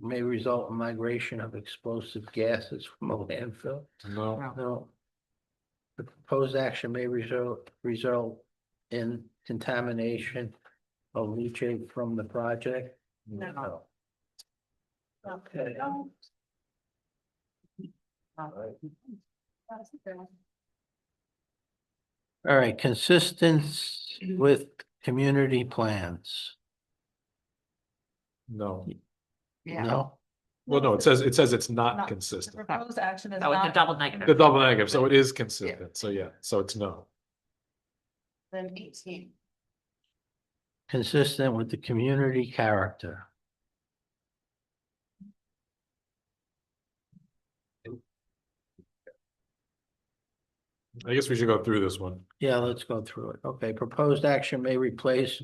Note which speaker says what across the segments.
Speaker 1: may result in migration of explosive gases from a landfill?
Speaker 2: No,
Speaker 1: No. The proposed action may result, result in contamination of leachate from the project?
Speaker 3: No.
Speaker 1: Okay.
Speaker 3: No.
Speaker 1: All right, consistence with community plans?
Speaker 2: no.
Speaker 4: Yeah.
Speaker 1: No?
Speaker 2: Well, no, it says, it says it's
Speaker 3: Not-
Speaker 2: not
Speaker 3: The
Speaker 2: consistent.
Speaker 3: proposed action is
Speaker 4: That was a
Speaker 3: not.
Speaker 4: double
Speaker 2: The
Speaker 4: negative.
Speaker 2: double negative, so it is consistent. So yeah, so it's no.
Speaker 3: Then eighteen.
Speaker 1: Consistent with the community character?
Speaker 2: I guess we should go through this one.
Speaker 1: Yeah, let's go through it. Okay, proposed action may replace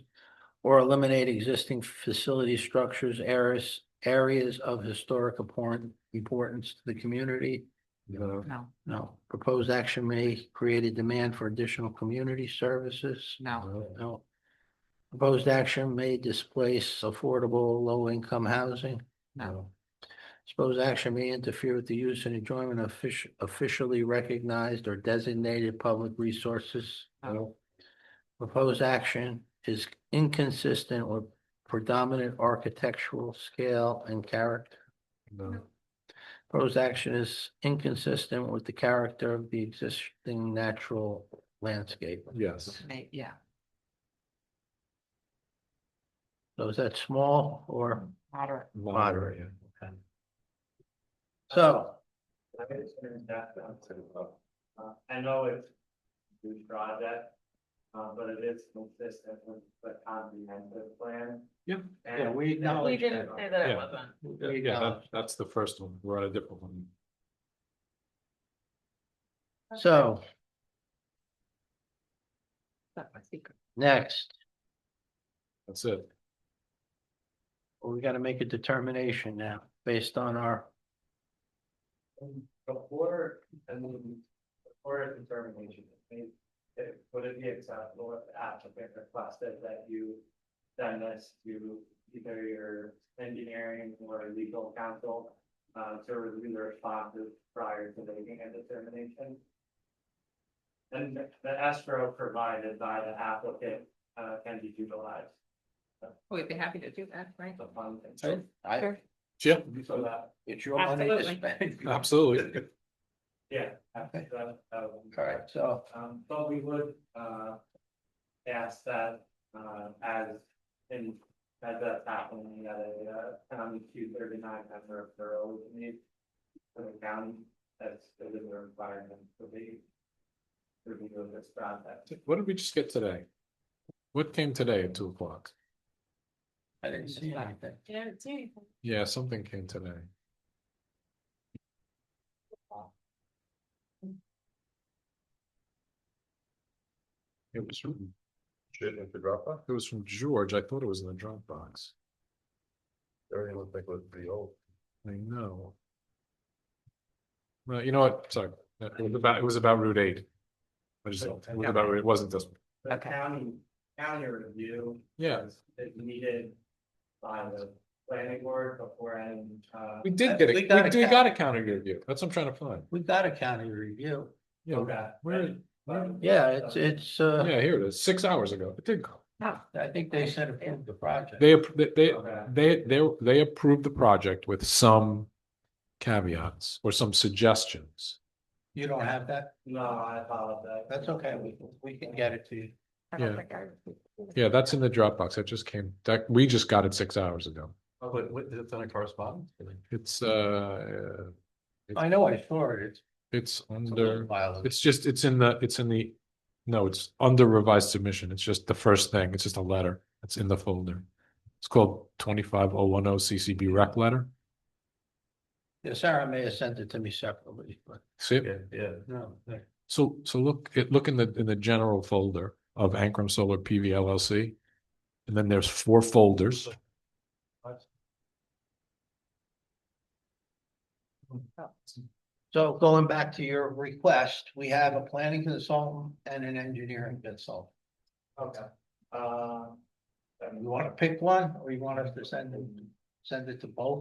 Speaker 1: or eliminate existing facility structures, areas, areas of historic important, importance to the community.
Speaker 2: No,
Speaker 4: No,
Speaker 1: No, proposed action may create a demand for additional community services.
Speaker 4: no,
Speaker 2: no,
Speaker 1: No. Proposed action may displace affordable low-income housing.
Speaker 4: no,
Speaker 1: Proposed action may interfere with the use and enjoyment of offici- officially recognized or designated public resources.
Speaker 4: no,
Speaker 1: Proposed action is inconsistent with predominant architectural scale and character.
Speaker 2: no,
Speaker 1: Proposed action is inconsistent with the character of the existing natural landscape.
Speaker 2: yes.
Speaker 4: may- yeah.
Speaker 1: So is that small or
Speaker 4: Moderate.
Speaker 1: Moderate.
Speaker 2: yeah.
Speaker 1: so?
Speaker 5: I can turn that down to, uh, I know it's huge project, uh, but it is consistent with the comprehensive plan.
Speaker 2: Yeah.
Speaker 5: And-
Speaker 1: Yeah, we acknowledge
Speaker 3: We didn't say that
Speaker 2: Yeah.
Speaker 3: it wasn't.
Speaker 1: we
Speaker 2: Yeah, that,
Speaker 1: acknowledge.
Speaker 2: that's the first one. We're on a different one.
Speaker 1: So
Speaker 4: That's my secret.
Speaker 1: next,
Speaker 2: That's it.
Speaker 1: we gotta make a determination now based on our,
Speaker 5: Before, and then before a determination, is made, it- would it be acceptable if the applicant requested that you send this to either your engineering or legal counsel uh, to review the responses prior to making a determination? And the escrow provided by the applicant uh, can be utilized.
Speaker 4: We'd be happy to do that, right?
Speaker 5: The funds and
Speaker 1: I,
Speaker 5: so-
Speaker 1: I-
Speaker 4: Sure.
Speaker 2: Yeah,
Speaker 5: So that,
Speaker 1: it's your money to
Speaker 4: Absolutely.
Speaker 1: spend.
Speaker 2: absolutely.
Speaker 5: yeah.
Speaker 1: Okay.
Speaker 5: that- that would be-
Speaker 1: All right, so
Speaker 5: Um, but we would, uh, ask that, uh, as in, as that's happening, that a, uh, county two thirty-nine member of borough would need for the county, that's within their requirement to be to be doing this project.
Speaker 2: What did we just get today? What came today at two o'clock?
Speaker 1: I didn't see anything.
Speaker 3: Yeah, it's anything.
Speaker 2: Yeah, something came today. It was from. in the Dropbox? It was from George. I thought it was in the Dropbox. Everything looked like it was pretty old. I know. Well, you know what? Sorry, it was about, it was about Route eight. I just, it was about, it wasn't this one.
Speaker 5: The
Speaker 4: Okay.
Speaker 5: county, county review.
Speaker 2: Yeah.
Speaker 5: is- Is needed by the planning board before and, uh.
Speaker 2: We did get it.
Speaker 1: We
Speaker 2: We,
Speaker 1: got a
Speaker 2: do- we
Speaker 1: ca-
Speaker 2: got a counter review. That's what I'm trying to find.
Speaker 1: We've got a county review.
Speaker 2: Yeah, where, where-
Speaker 1: Yeah, it's, it's, uh,
Speaker 2: yeah, here it is. Six hours ago. It did go.
Speaker 1: I think they said approve the project.
Speaker 2: They, appro- they- they,
Speaker 5: Okay.
Speaker 2: they, they, they approved the project with some caveats or some suggestions.
Speaker 1: You don't have that?
Speaker 5: No, I apologize.
Speaker 1: That's okay, we, can we can get it to you.
Speaker 4: I don't
Speaker 2: Yeah.
Speaker 4: think I-
Speaker 2: Yeah, that's in the Dropbox. That just came, that, we just got it six hours ago.
Speaker 1: But what, is it on a correspondence?
Speaker 2: It's, uh,
Speaker 1: I know, I saw it, it's.
Speaker 2: it's
Speaker 1: it's a little
Speaker 2: under,
Speaker 1: while ago.
Speaker 2: it's just, it's in the, it's in the, no, it's under revised submission. It's just the first thing. It's just a letter. It's in the folder. It's called twenty-five oh one oh CCB rec letter.
Speaker 1: Yeah, Sarah may have sent it to me separately, but
Speaker 2: See it?
Speaker 5: yeah.
Speaker 1: no. there-
Speaker 2: So, so look, at look in the, in the general folder of Ankrum Solar PV LLC. And then there's four folders.
Speaker 1: So going back to your request, we have a planning consultant and an engineering consultant.
Speaker 5: Okay, um.
Speaker 1: You want to pick one or you want us to send them, send it to both?